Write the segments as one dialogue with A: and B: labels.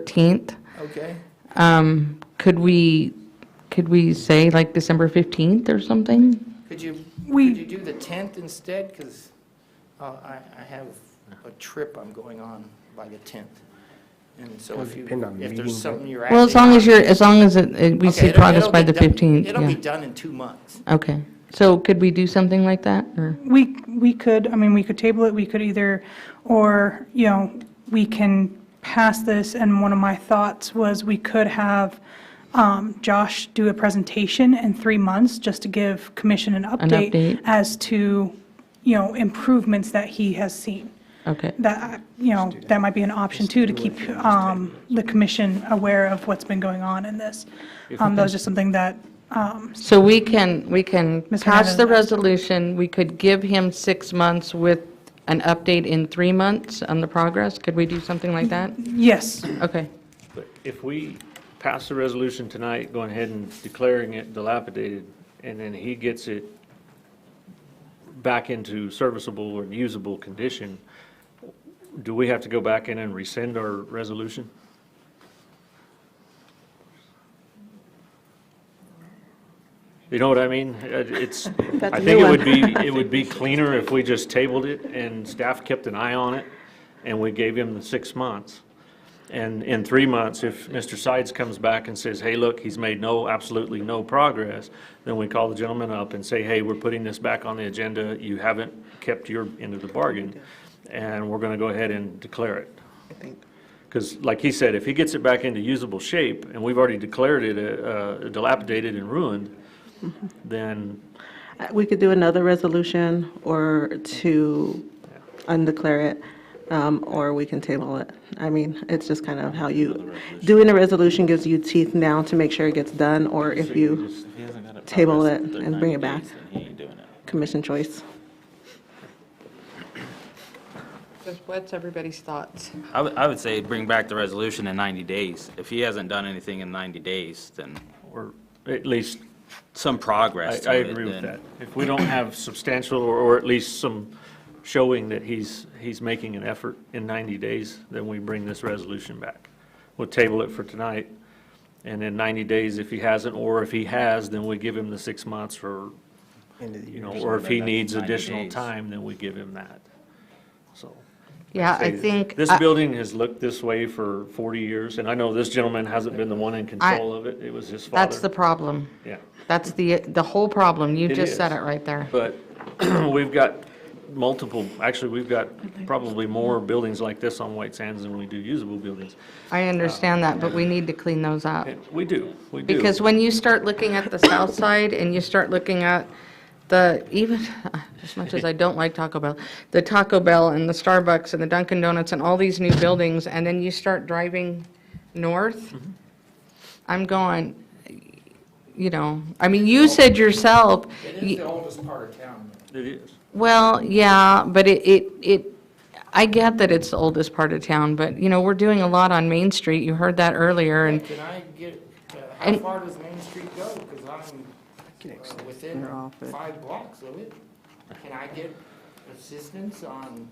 A: 13th.
B: Okay,
A: Um, Could we, could we say like December 15th or something?
B: could you,
C: We-
B: could you do the 10th instead? Because I, I have a trip I'm going on by the 10th. And so if you,
D: Depend on
B: if
D: meeting,
B: there's something you're acting.
A: Well, as long as
B: on-
A: you're, as long as it- it- we
B: Okay,
A: see
B: it'll-
A: progress
B: it'll
A: by the
B: be done-
A: 15th,
B: It'll be
A: yeah.
B: done in two months.
A: Okay, so could we do something like that, or?
C: We, we could, I mean, we could table it, we could either, or, you know, we can pass this, and one of my thoughts was we could have um, Josh do a presentation in three months, just to give commission an update.
A: update.
C: As to, you know, improvements that he has seen.
A: Okay,
C: That, you know, that might be an option too, to keep um, the commission aware of what's been going on in this. Um, That was just something that, um,
A: so we can, we can
C: Ms.
A: pass the
C: Hernandez.
A: resolution, we could give him six months with an update in three months on the progress? Could we do something like that?
C: yes,
A: Okay,
E: But if we pass the resolution tonight, going ahead and declaring it dilapidated, and then he gets it back into serviceable or usable condition, do we have to go back in and rescind our resolution? You know what I mean? It- It's, I
F: a
E: think
F: new
E: it
F: one.
E: would be, it would be cleaner if we just tabled it and staff kept an eye on it, and we gave him the six months. And in three months, if Mr. Sides comes back and says, hey, look, he's made no, absolutely no progress, then we call the gentleman up and say, hey, we're putting this back on the agenda. You haven't kept your end of the bargain, and we're going to go ahead and declare it. Because like he said, if he gets it back into usable shape, and we've already declared it uh, dilapidated and ruined, then
F: Uh, We could do another resolution or to undeclare it, um, or we can table it. I mean, it's just kind of how you, doing a resolution gives you teeth now to make sure it gets done, or if you,
G: If he hasn't got it
F: Table
G: processed
F: it
G: within
F: and bring
G: 90
F: it back.
G: days, then he ain't doing it.
F: commission choice.
H: What's everybody's thoughts?
G: I would, I would say bring back the resolution in 90 days. If he hasn't done anything in 90 days, then
E: or at least
G: some progress
E: I,
G: to
E: I
G: it.
E: agree with
G: then-
E: that. If we don't have substantial, or, or at least some showing that he's, he's making an effort in 90 days, then we bring this resolution back. We'll table it for tonight, and in 90 days, if he hasn't, or if he has, then we give him the six months for, you know, or if he
G: Then that's
E: needs
G: 90
E: additional
G: days.
E: time, then we give him that, so.
A: yeah, I
E: say,
A: think. uh,
E: This
A: I-
E: building has looked this way for 40 years, and I know this gentleman hasn't been the one in control of it, it was his father.
A: That's the problem.
E: Yeah.
A: That's the, the whole problem. You
E: It
A: just said
E: is.
A: it right there.
E: But we've got multiple, actually, we've got probably more buildings like this on White Sands than we do usable buildings.
A: I understand that, but we need to clean those up.
E: And We do, we do.
A: Because when you start looking at the south side and you start looking at the, even, as much as I don't like Taco Bell, the Taco Bell and the Starbucks and the Dunkin' Donuts and all these new buildings, and then you start driving north,
E: Mm-hmm.
A: I'm going, you know, I mean, you said yourself,
B: It
A: y-
B: is the oldest part of town.
E: It is.
A: well, yeah, but it, it, it, I get that it's the oldest part of town, but, you know, we're doing a lot on Main Street, you heard that earlier, and
B: Can I get, uh, how
A: And-
B: far does Main Street go? Because I'm uh, within
H: They're off it.
B: five blocks of it. Can I get assistance on?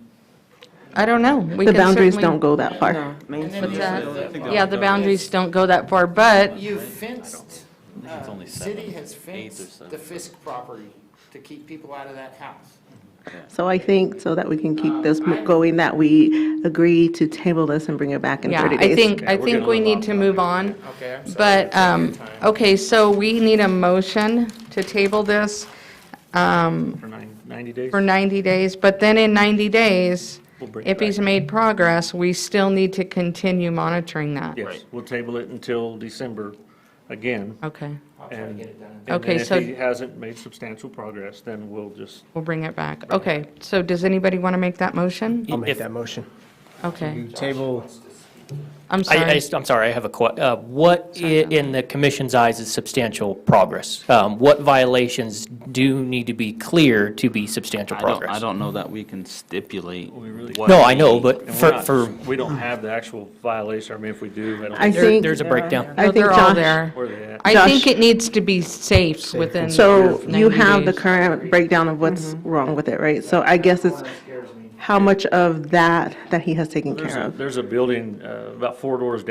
A: I don't know. we
F: The
A: can
F: boundaries
A: certainly-
F: don't go that far.
H: No, Main
B: And then
H: Street.
B: the
A: that?
B: other thing-
A: Yeah, the boundaries don't go that far, but
B: You fenced,
G: I think it's
B: uh,
G: only
B: city
G: seven,
B: has
G: eighth or
B: fenced
G: seven.
B: the Fisk property to keep people out of that house.
F: So I think, so that we can keep this mo- going, that we agree to table this and bring it back in
A: yeah,
F: 30 days.
A: I think, I
E: we're
A: think
E: gonna
A: we
E: move
A: need
E: on.
A: to move on.
B: Okay, I'm sorry.
A: But,
B: I
A: um,
B: took your time.
A: okay, so we need a motion to table this
E: For nine- 90 days?
A: for 90 days, but then in 90 days,
E: We'll bring it
A: if he's
E: back.
A: made progress, we still need to continue monitoring that.
E: Yes, we'll table it until December again.
A: Okay,
B: I'll try to get it done. in-
A: Okay,
E: And
A: so-
E: then if he hasn't made substantial progress, then we'll just,
A: we'll bring it back. Okay, so does anybody want to make that motion?
D: I'll make that motion.
A: Okay,
D: Table,
A: I'm
I: I, I
A: sorry.
I: just- I'm sorry, I have a que, uh, what i- in the commission's eyes is substantial progress? Um, what violations do need to be clear to be substantial
G: I don't,
I: progress?
G: I don't know that we can stipulate. what
I: No, I know,
G: he-
I: but
E: and we're
I: for,
E: not-
I: for,
E: we don't have the actual violation, I mean, if we do, I don't
F: I
E: think
I: there-
F: think,
I: there's a breakdown.
F: I
A: No,
F: think
A: They're all
F: Josh,
A: there.
E: where they at.
A: I think
F: Josh-
A: it needs to be safe within 90 days.
F: so you have the current breakdown of what's wrong with it, right? So I guess it's how much of that that he has taken
E: There's
F: care
E: a,
F: of.
E: there's a building uh, about four doors down